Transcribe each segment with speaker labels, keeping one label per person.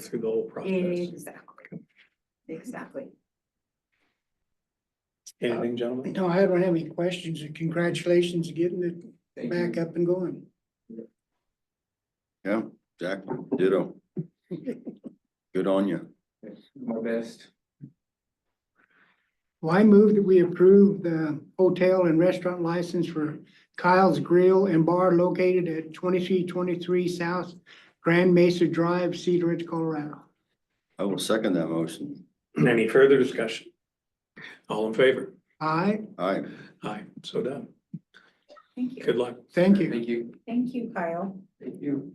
Speaker 1: through the whole process.
Speaker 2: Exactly. Exactly.
Speaker 1: Anything, gentlemen?
Speaker 3: No, I don't have any questions. and Congratulations on getting it back up and going.
Speaker 4: Yeah, exactly. Ditto. Good on you.
Speaker 5: My best.
Speaker 3: Well, I move that we approve the hotel and restaurant license for Kyle's Grill and Bar located at twenty-three twenty-three South Grand Mesa Drive, Cedar Ridge, Colorado.
Speaker 4: I will second that motion.
Speaker 1: Any further discussion? All in favor?
Speaker 3: Aye,
Speaker 4: Aye.
Speaker 1: Aye, so done.
Speaker 2: Thank you.
Speaker 1: Good luck.
Speaker 3: thank you.
Speaker 5: Thank you.
Speaker 2: Thank you, Kyle.
Speaker 5: Thank you.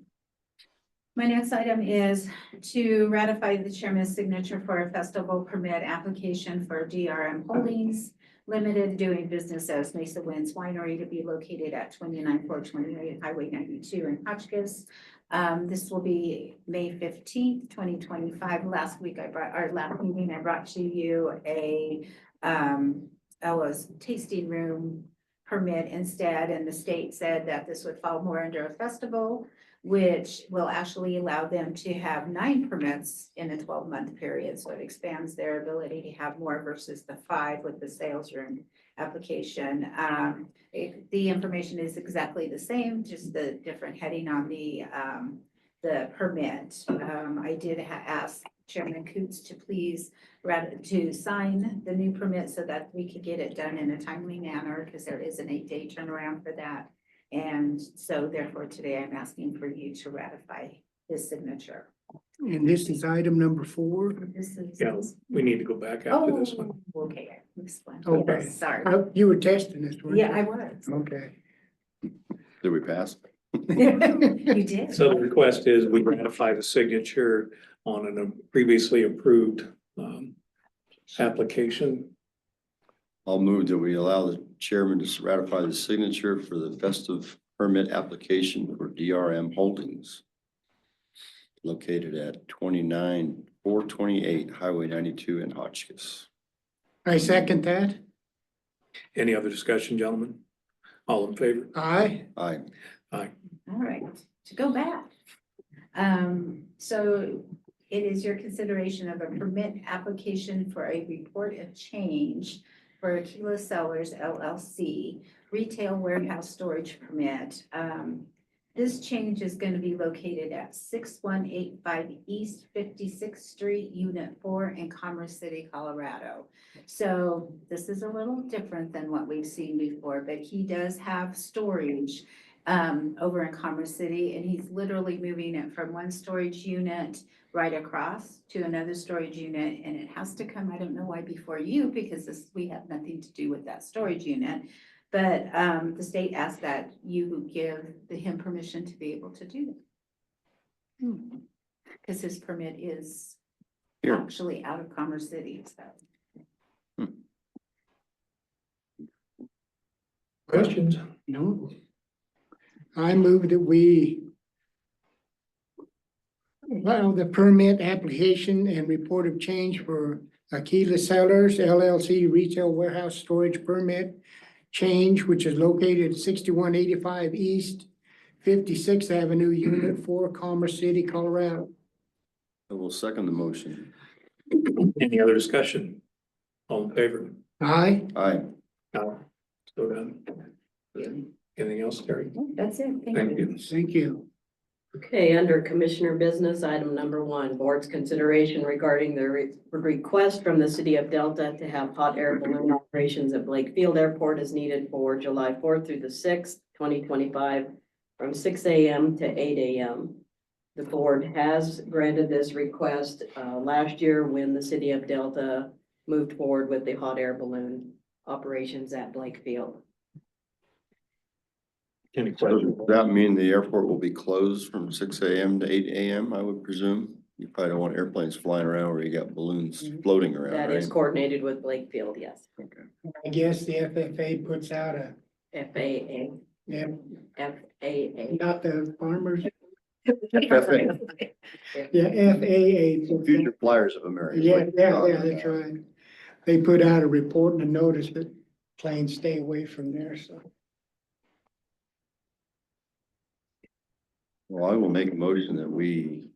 Speaker 2: My next item is to ratify the chairman's signature for a festival permit application for DRM Holdings Limited doing business as Mesa Winds Winery to be located at twenty-nine four twenty-eight Highway ninety-two in Hotchkiss. Um, this will be May fifteenth, twenty twenty-five. Last week I brought, our last meeting, I brought to you a um, Ella's tasting room permit instead, and the state said that this would fall more under a festival which will actually allow them to have nine permits in a twelve-month period. So it expands their ability to have more versus the five with the sales room application. Um, it- the information is exactly the same, just the different heading on the, um, the permit. Um, I did ha- ask Chairman Coots to please rat- to sign the new permit so that we could get it done in a timely manner, because there is an eight-day turnaround for that. And so therefore today I'm asking for you to ratify his signature.
Speaker 3: And this is item number four.
Speaker 2: This is.
Speaker 1: Yeah, we need to go back after this one.
Speaker 2: Oh, okay, I missed one.
Speaker 3: Okay.
Speaker 2: Sorry.
Speaker 3: Uh, You were testing this, weren't you?
Speaker 2: Yeah, I was.
Speaker 3: Okay.
Speaker 4: Did we pass?
Speaker 2: You did.
Speaker 1: So the request is we ratify the signature on a previously approved um application.
Speaker 4: I'll move that we allow the chairman to ratify the signature for the festive permit application for DRM Holdings located at twenty-nine, four twenty-eight, Highway ninety-two in Hotchkiss.
Speaker 3: I second that.
Speaker 1: Any other discussion, gentlemen? All in favor?
Speaker 3: Aye,
Speaker 4: Aye.
Speaker 2: All right, to go back. Um, so it is your consideration of a permit application for a report of change for Aquila Sellers LLC Retail Warehouse Storage Permit. Um, this change is going to be located at six one eight five East Fifty-Sixth Street, Unit Four in Commerce City, Colorado. So this is a little different than what we've seen before, but he does have storage um, over in Commerce City, and he's literally moving it from one storage unit right across to another storage unit, and it has to come, I don't know why before you, because this, we have nothing to do with that storage unit. But, um, the state asked that you give the him permission to be able to do that. Cause his permit is
Speaker 4: Here.
Speaker 2: actually out of Commerce City, so.
Speaker 1: Questions?
Speaker 3: no. I move that we allow the permit application and report of change for Aquila Sellers LLC Retail Warehouse Storage Permit change, which is located at sixty-one eighty-five East Fifty-Sixth Avenue, Unit Four, Commerce City, Colorado.
Speaker 4: I will second the motion.
Speaker 1: Any other discussion? All in favor?
Speaker 3: Aye,
Speaker 4: Aye.
Speaker 1: Aye. So done. Anything else, Terry?
Speaker 2: That's it, thank
Speaker 1: Thank
Speaker 2: you.
Speaker 1: you.
Speaker 3: thank you.
Speaker 6: Okay, under Commissioner Business, item number one, Board's consideration regarding the re- request from the City of Delta to have hot air balloon operations at Blake Field Airport is needed for July fourth through the sixth, twenty twenty-five, from six AM to eight AM. The Board has granted this request uh, last year when the City of Delta moved forward with the hot air balloon operations at Blake Field.
Speaker 1: Any
Speaker 4: Does
Speaker 1: questions?
Speaker 4: that mean the airport will be closed from six AM to eight AM, I would presume? You probably don't want airplanes flying around where you got balloons floating around,
Speaker 6: Mm-hmm. That is
Speaker 4: right?
Speaker 6: coordinated with Blake Field, yes.
Speaker 3: I guess the FFA puts out a,
Speaker 6: FAA,
Speaker 3: yeah,
Speaker 6: FAA.
Speaker 3: not the farmers,
Speaker 4: FFA.
Speaker 3: yeah, FAA. puts out-
Speaker 4: Future Flyers of America.
Speaker 3: Yeah, yeah, yeah, that's right. They put out a report and a notice that planes stay away from there, so.
Speaker 4: Well, I will make a motion that we